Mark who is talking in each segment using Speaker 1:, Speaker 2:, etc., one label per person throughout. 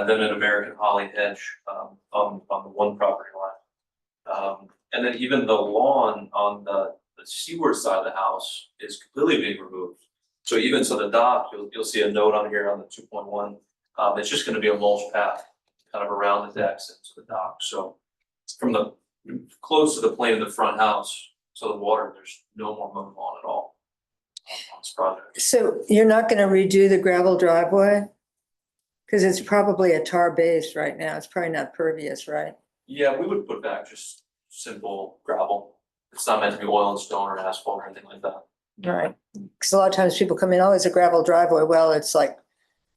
Speaker 1: and then an American holly hedge, um, on, on the one property line. Um, and then even the lawn on the, the seaward side of the house is completely being removed. So even so the dock, you'll, you'll see a note on here on the two point one, um, it's just gonna be a mulch path kind of around the decks and to the dock, so from the, close to the plane of the front house to the water, there's no more mowed lawn at all on- on this project.
Speaker 2: So you're not gonna redo the gravel driveway? Cause it's probably a tar base right now. It's probably not pervious, right?
Speaker 1: Yeah, we would put back just simple gravel. It's not meant to be oil and stone or asphalt or anything like that.
Speaker 2: Right. Cause a lot of times people come in, oh, it's a gravel driveway. Well, it's like,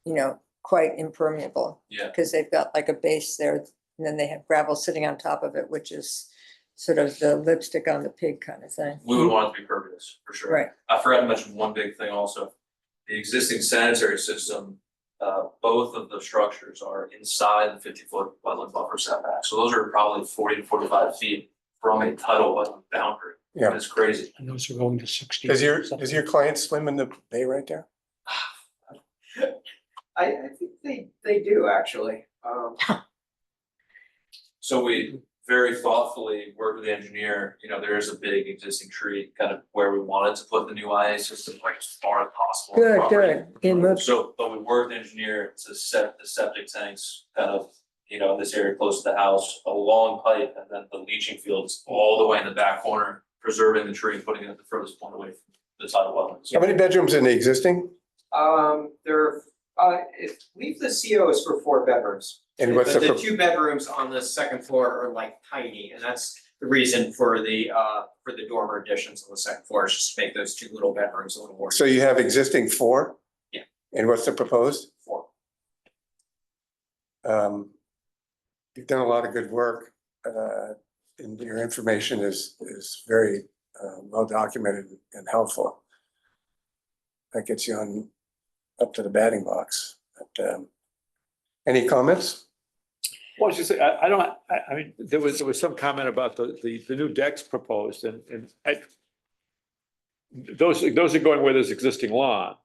Speaker 2: you know, quite impermeable.
Speaker 1: Yeah.
Speaker 2: Cause they've got like a base there and then they have gravel sitting on top of it, which is sort of the lipstick on the pig kind of thing.
Speaker 1: We would want it to be pervious, for sure.
Speaker 2: Right,
Speaker 1: I forgot to mention one big thing also. The existing sanitary system, uh, both of the structures are inside the fifty foot wetland buffer setback. So those are probably forty to forty five feet from a tidal wetland boundary.
Speaker 3: Yeah.
Speaker 1: It's crazy.
Speaker 4: And those are going to sixty.
Speaker 3: Is your, is your client swim in the bay right there?
Speaker 5: I, I think they, they do actually. Um,
Speaker 1: So we very thoughtfully worked with the engineer, you know, there is a big existing tree kind of where we wanted to put the new IA system, like as far as possible.
Speaker 2: good,
Speaker 1: from the property.
Speaker 2: good. It moves,
Speaker 1: So, but we worked with the engineer to set the septic tanks kind of, you know, this area close to the house, a long pipe, and then the leaching fields all the way in the back corner, preserving the tree and putting it at the furthest point away from the tidal wetlands.
Speaker 3: How many bedrooms in the existing?
Speaker 5: um, there, uh, if, leave the COs for four bedrooms.
Speaker 3: And what's the,
Speaker 5: But the
Speaker 3: pro-
Speaker 5: two bedrooms on the second floor are like tiny, and that's the reason for the, uh, for the dormer additions on the second floor, is just to make those two little bedrooms a little more.
Speaker 3: so you have existing four?
Speaker 5: Yeah.
Speaker 3: And what's the proposed?
Speaker 5: Four.
Speaker 3: Um, you've done a lot of good work, uh, and your information is, is very, uh, well documented and helpful. That gets you on, up to the batting box, but, um, any comments?
Speaker 6: Well, I was just, saying, I, I don't, I, I mean, there was, there was some comment about the, the, the new decks proposed and, and I. Those, those are going where there's existing lawn,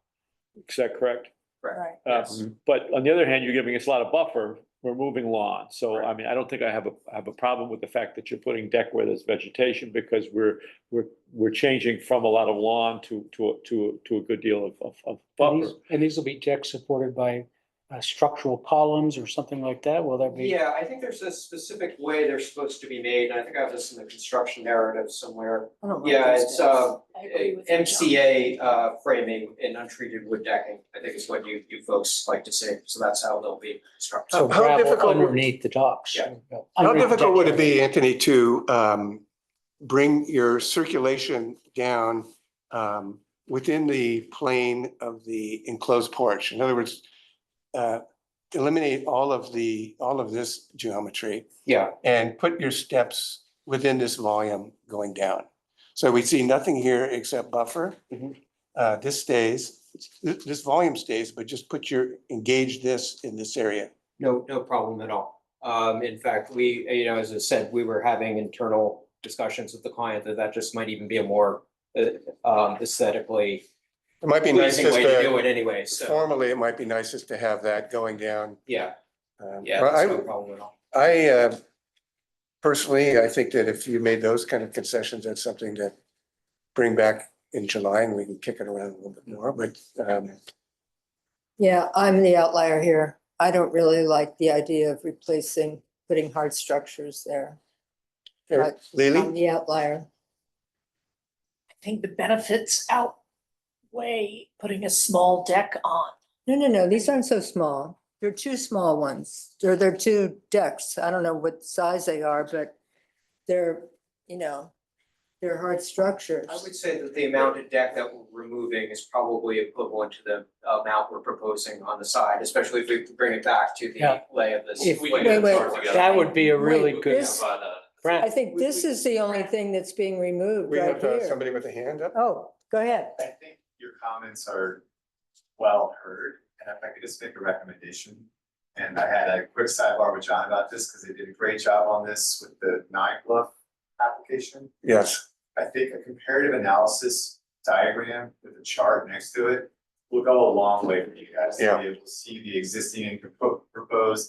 Speaker 6: is that correct?
Speaker 2: right.
Speaker 6: Uh,
Speaker 5: Yes.
Speaker 6: But on the other hand, you're giving us a lot of buffer, we're moving lawn, so I
Speaker 5: Right.
Speaker 6: mean, I don't think I have a, I have a problem with the fact that you're putting deck where there's vegetation. Because we're, we're, we're changing from a lot of lawn to, to, a- to, a- to a good deal of, of, of
Speaker 4: And these-
Speaker 6: buffer.
Speaker 4: and these will be decks supported by uh, structural columns or something like that? Will that be?
Speaker 5: Yeah, I think there's a specific way they're supposed to be made, and I think I have this in the construction narrative somewhere.
Speaker 2: I don't like
Speaker 5: Yeah,
Speaker 2: those
Speaker 5: it's,
Speaker 2: guys.
Speaker 5: uh,
Speaker 7: I agree with you, John.
Speaker 5: MCA uh, framing and untreated wood decking, I think is what you, you folks like to say, so that's how they'll be constructed.
Speaker 4: So
Speaker 3: How- how
Speaker 4: gravel
Speaker 3: difficult would-
Speaker 4: underneath the docks.
Speaker 5: Yeah.
Speaker 3: How
Speaker 4: Underneath the
Speaker 3: difficult would it
Speaker 4: decks.
Speaker 3: be, Anthony, to um bring your circulation down um within the plane of the enclosed porch? In other words, uh eliminate all of the, all of this geometry
Speaker 5: Yeah,
Speaker 3: and put your steps within this volume going down. So we see nothing here except buffer.
Speaker 5: Mhm.
Speaker 3: Uh, this stays, this this volume stays, but just put your, engage this in this area.
Speaker 5: no, no problem at all. Um, in fact, we, you know, as I said, we were having internal discussions with the client that that just might even be a more uh, um, aesthetically
Speaker 3: It might be nice
Speaker 5: pleasing
Speaker 3: just
Speaker 5: way to
Speaker 3: to
Speaker 5: do it anyway, so,
Speaker 3: Formally, it might be nicest to have that going down.
Speaker 5: yeah,
Speaker 3: um,
Speaker 5: yeah,
Speaker 3: well, I-
Speaker 5: that's no problem at all.
Speaker 3: I, uh, personally, I think that if you made those kind of concessions, that's something to bring back in July and we can kick it around a little bit more, but, um,
Speaker 2: Yeah, I'm the outlier here. I don't really like the idea of replacing, putting hard structures there.
Speaker 3: Eric,
Speaker 2: I'm
Speaker 3: Lily,
Speaker 2: the outlier.
Speaker 7: I think the benefits outweigh putting a small deck on.
Speaker 2: No, no, no, these aren't so small. They're two small ones. They're, they're two decks. I don't know what size they are, but they're, you know, they're hard structures.
Speaker 5: I would say that the amount of deck that we're removing is probably equivalent to the amount we're proposing on the side, especially if we bring it back to the
Speaker 4: Yeah.
Speaker 5: lay of this.
Speaker 4: If-
Speaker 1: We
Speaker 2: wait,
Speaker 1: can
Speaker 2: wait.
Speaker 1: start together.
Speaker 4: That would be a
Speaker 2: Wait,
Speaker 4: really
Speaker 1: We can
Speaker 4: good.
Speaker 2: this-
Speaker 1: provide that.
Speaker 4: grant.
Speaker 2: I think this is the only thing that's being removed
Speaker 3: we
Speaker 2: right
Speaker 3: have uh,
Speaker 2: here.
Speaker 3: somebody with a hand up.
Speaker 2: Oh, go ahead.
Speaker 8: I think your comments are well heard, and if I could just make a recommendation. And I had a quick sidebar with John about this, because they did a great job on this with the nine bluff application.
Speaker 3: Yes,
Speaker 8: I think a comparative analysis diagram with a chart next to it will go a long way for you guys
Speaker 3: Yeah.
Speaker 8: to be able to see the existing and propo- proposed